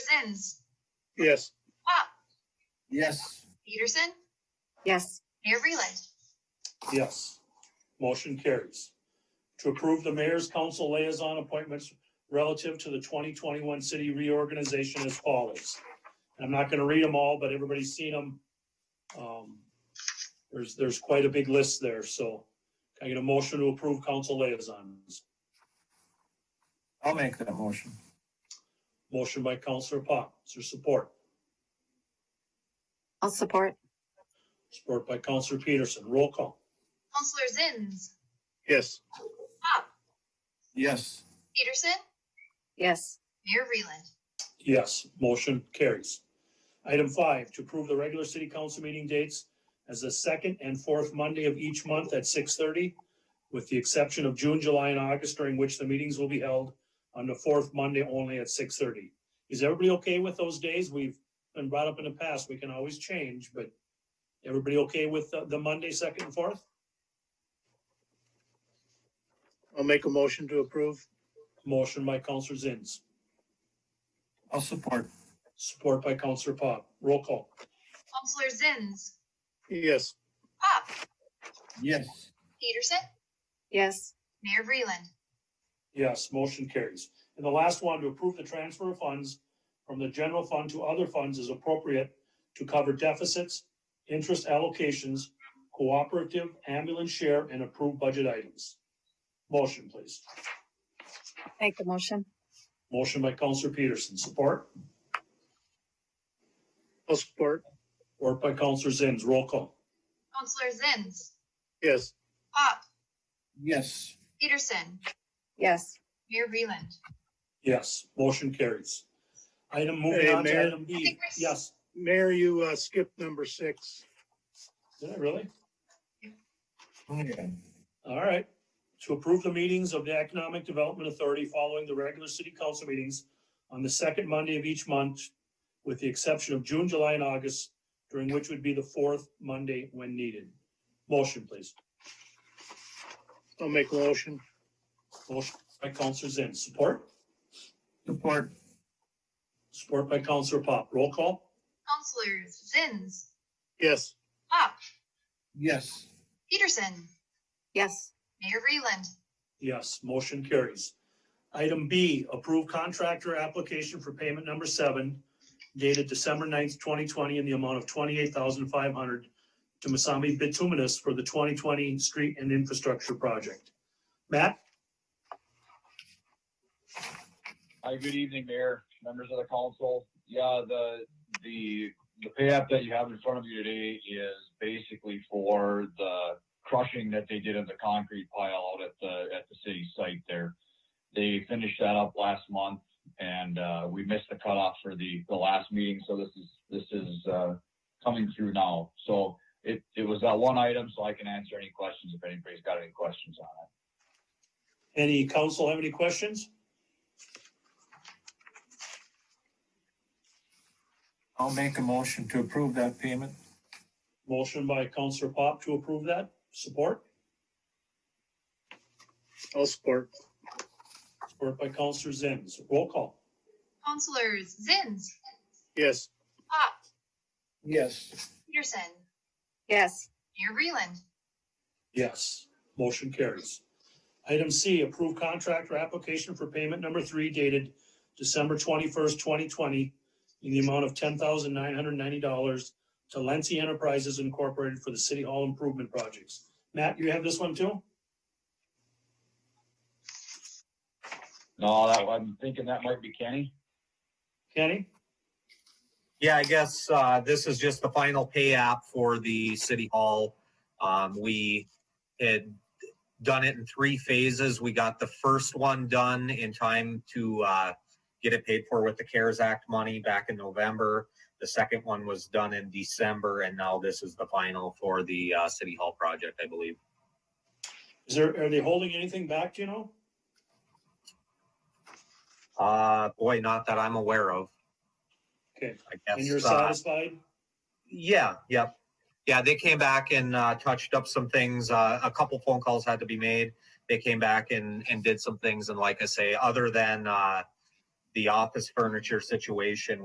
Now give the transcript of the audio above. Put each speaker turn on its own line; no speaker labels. Zins,
Yes.
Pop,
Yes.
Peterson,
Yes.
Mayor Reland.
Yes. Motion carries. To approve the mayor's council liaison appointments relative to the twenty twenty-one city reorganization as follows. And I'm not gonna read them all, but everybody's seen them. Um, there's, there's quite a big list there, so can I get a motion to approve council liaisons.
I'll make that motion.
Motion by Counselor Pop, is there support?
I'll support.
Support by Counselor Peterson, roll call.
Counselor Zins,
Yes.
Pop,
Yes.
Peterson,
Yes.
Mayor Reland.
Yes, motion carries. Item five, to approve the regular city council meeting dates as the second and fourth Monday of each month at six thirty, with the exception of June, July, and August, during which the meetings will be held on the fourth Monday only at six thirty. Is everybody okay with those days? We've been brought up in the past, we can always change, but everybody okay with the, the Monday, second and fourth?
I'll make a motion to approve.
Motion by Counselor Zins,
I'll support.
support by Counselor Pop. Roll call.
Counselor Zins,
Yes,
Pop,
Yes.
Peterson,
Yes.
Mayor Reland.
Yes, motion carries. And the last one, to approve the transfer of funds from the general fund to other funds as appropriate to cover deficits, interest allocations, cooperative ambulance share, and approved budget items. Motion, please.
Make the motion.
Motion by Counselor Peterson, support,
I'll support.
or by Counselor Zins, roll call.
Counselor Zins,
Yes,
Pop,
Yes.
Peterson,
Yes.
Mayor Reland.
Yes, motion carries. Item moving
Hey,
on to
Mayor.
item B. Yes,
Mayor, you uh, skipped number six.
did I really?
Okay.
All right. To approve the meetings of the Economic Development Authority following the regular city council meetings on the second Monday of each month, with the exception of June, July, and August, during which would be the fourth Monday when needed. Motion, please.
I'll make a motion.
Motion by Counselor Zinn. Support?
Support.
Support by Counselor Pop. Roll call?
Counselor Zins,
Yes,
Pop,
Yes.
Peterson,
Yes.
Mayor Reland.
Yes, motion carries. Item B, approve contractor application for payment number seven dated December 9th, twenty twenty, in the amount of twenty-eight thousand five hundred to Masami Bituminous for the twenty twenty street and infrastructure project. Matt,
Hi, good evening, Mayor, members of the council. Yeah, the, the, the pay app that you have in front of you today is basically for the crushing that they did in the concrete pile out at the, at the city site there. They finished that up last month and, uh, we missed the cutoff for the, the last meeting, so this is, this is, uh, coming through now. So it, it was that one item, so I can answer any questions if anybody's got any questions on it.
any council have any questions?
I'll make a motion to approve that payment.
Motion by Counselor Pop to approve that. Support?
I'll support.
Support by Counselor Zins. Roll call.
Counselor Zins,
Yes,
Pop,
Yes.
Peterson,
Yes.
Mayor Reland.
Yes, motion carries. Item C, approve contractor application for payment number three dated December twenty-first, twenty twenty in the amount of ten thousand nine hundred ninety dollars to Lency Enterprises Incorporated for the City Hall Improvement Projects. Matt, you have this one too?
No, that, I'm thinking that might be Kenny.
Kenny?
Yeah, I guess uh, this is just the final pay app for the city hall. Um, We had done it in three phases. We got the first one done in time to uh, get it paid for with the CARES Act money back in November. The second one was done in December, and now this is the final for the uh, city hall project, I believe.
Is there, are they holding anything back, do you know?
Uh, Boy, not that I'm aware of.
Okay.
I guess.
And you're
uh,
satisfied?
Yeah, yep. Yeah, they came back and uh, touched up some things. Uh, a couple phone calls had to be made. They came back and, and did some things. And like I say, other than uh, the office furniture situation,